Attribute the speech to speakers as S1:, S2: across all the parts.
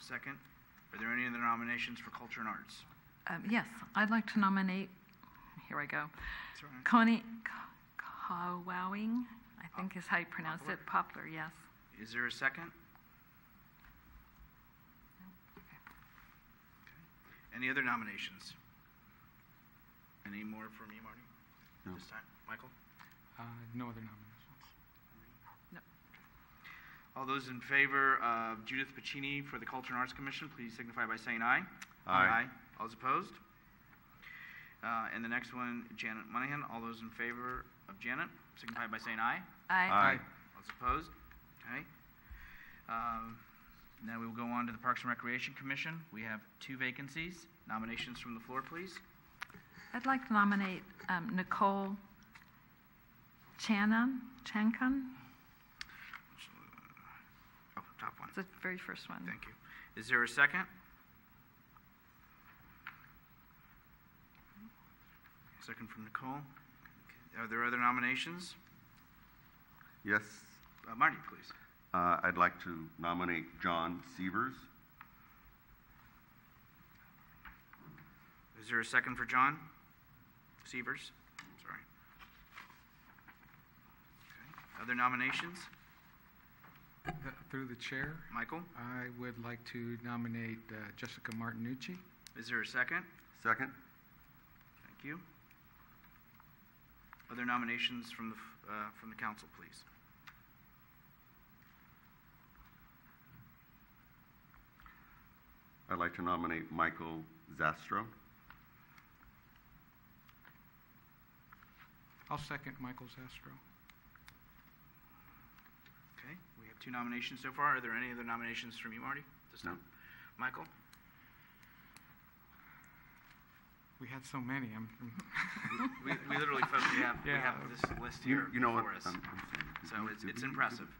S1: second. Are there any other nominations for Culture and Arts?
S2: Um, Yes, I'd like to nominate, here I go,
S1: That's all right.
S2: Connie Kowowing, I think is how you pronounce it, Poplar, yes.
S1: Is there a second? Any other nominations? Any more from you, Marty?
S3: No.
S1: This time, Michael?
S4: Uh, no other nominations.
S2: No.
S1: All those in favor of Judith Pacini for the Culture and Arts Commission, please signify by saying aye.
S3: Aye.
S1: All those opposed? Uh, and the next one, Janet Monahan. All those in favor of Janet, signify by saying aye.
S2: Aye.
S1: All those opposed? Okay. Um, now we will go on to the Parks and Recreation Commission. We have two vacancies. Nominations from the floor, please.
S2: I'd like to nominate um, Nicole Chanan, Chankun,
S1: Oh, top one.
S2: it's the very first one.
S1: Thank you. Is there a second? Second from Nicole. Are there other nominations?
S3: Yes,
S1: Uh, Marty, please.
S3: uh, I'd like to nominate John Severs.
S1: Is there a second for John? Severs? Sorry. Okay. Other nominations?
S4: Th- Through the chair,
S1: Michael,
S4: I would like to nominate uh, Jessica Martinucci.
S1: is there a second?
S3: Second?
S1: Thank you. Other nominations from the, f- uh, from the council, please?
S3: I'd like to nominate Michael Zastro.
S4: I'll second Michael Zastro.
S1: Okay, we have two nominations so far. Are there any other nominations from you, Marty? this
S3: No.
S1: time? Michael?
S4: We had so many. I'm,
S1: We, we literally, folks, we have, we have
S4: Yeah.
S1: this list
S3: You-
S1: here
S3: You know what? um,
S1: before us.
S3: I'm- I'm sorry.
S1: So
S3: Did we-
S1: it's,
S3: did
S1: it's
S3: we- did
S1: impressive.
S3: we-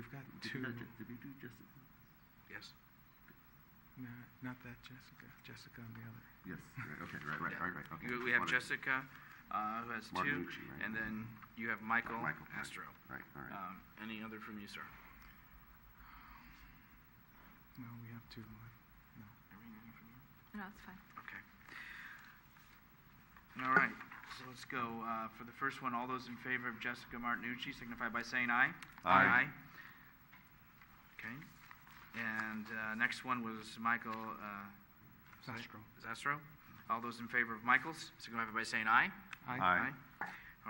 S4: we've got
S3: did
S4: two.
S3: we not ju- Did we do Jessica?
S1: Yes.
S4: No, not that Jessica. Jessica on the other.
S3: Yes, right, okay, right, right,
S1: Yeah.
S3: right, right, okay.
S1: You- We have
S3: Wanted-
S1: Jessica, uh, who has two,
S3: Martinucci, right?
S1: and then you have Michael
S3: Michael, right,
S1: Astro.
S3: Right, all right.
S1: Um, Any other from you, sir?
S4: No, we have two. No.
S1: Everything from you?
S2: No, it's fine.
S1: Okay. All right, so let's go. uh, For the first one, all those in favor of Jessica Martinucci signify by saying aye.
S3: Aye.
S1: Okay. And uh, next one was Michael uh,
S4: Zastro.
S1: Zastro. All those in favor of Michael's signify by saying aye.
S4: Aye.
S3: Aye.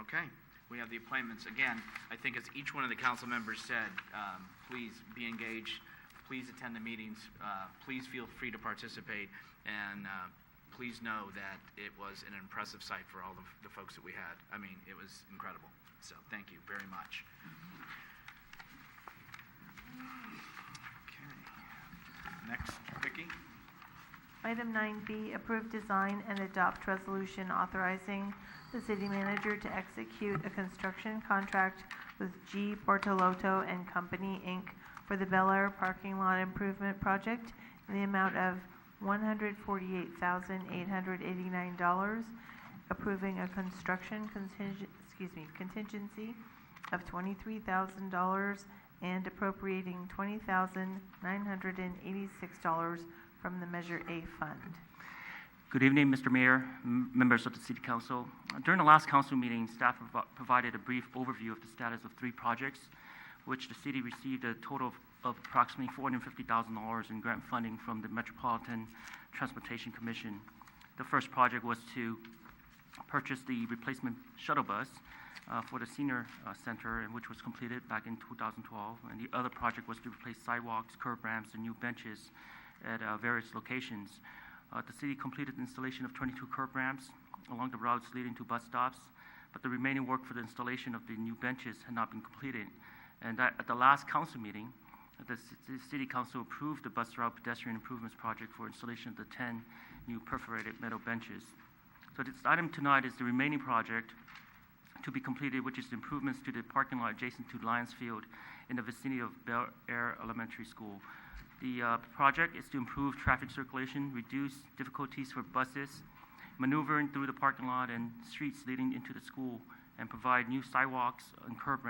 S1: Okay, we have the appointments. Again, I think as each one of the council members said, um, please be engaged, please attend the meetings, uh, please feel free to participate, and uh, please know that it was an impressive sight for all of the folks that we had. I mean, it was incredible. So thank you very much. Okay. Next, Vicky?
S5: Item 9B, approve design and adopt resolution authorizing the city manager to execute a construction contract with G. Bortolotto and Company, Inc. for the Bel Air Parking Lot Improvement Project in the amount of $148,889, approving a construction contingent, excuse me, contingency of $23,000 and appropriating $20,986 from the Measure A fund.
S6: Good evening, Mr. Mayor, m- members of the City Council. During the last council meeting, staff provi- provided a brief overview of the status of three projects, which the city received a total of- of approximately $450,000 in grant funding from the Metropolitan Transportation Commission. The first project was to purchase the replacement shuttle bus uh, for the senior uh, center, and which was completed back in 2012. And the other project was to replace sidewalks, curb ramps, and new benches at uh, various locations. Uh, The city completed installation of 22 curb ramps along the routes leading to bus stops, but the remaining work for the installation of the new benches had not been completed. And that- at the last council meeting, the ci- the city council approved the bus route pedestrian improvements project for installation of the 10 new perforated metal benches. So this item tonight is the remaining project to be completed, which is improvements to the parking lot adjacent to Lions Field in the vicinity of Bel Air Elementary School. The uh, project is to improve traffic circulation, reduce difficulties for buses maneuvering through the parking lot and streets leading into the school, and provide new sidewalks and curb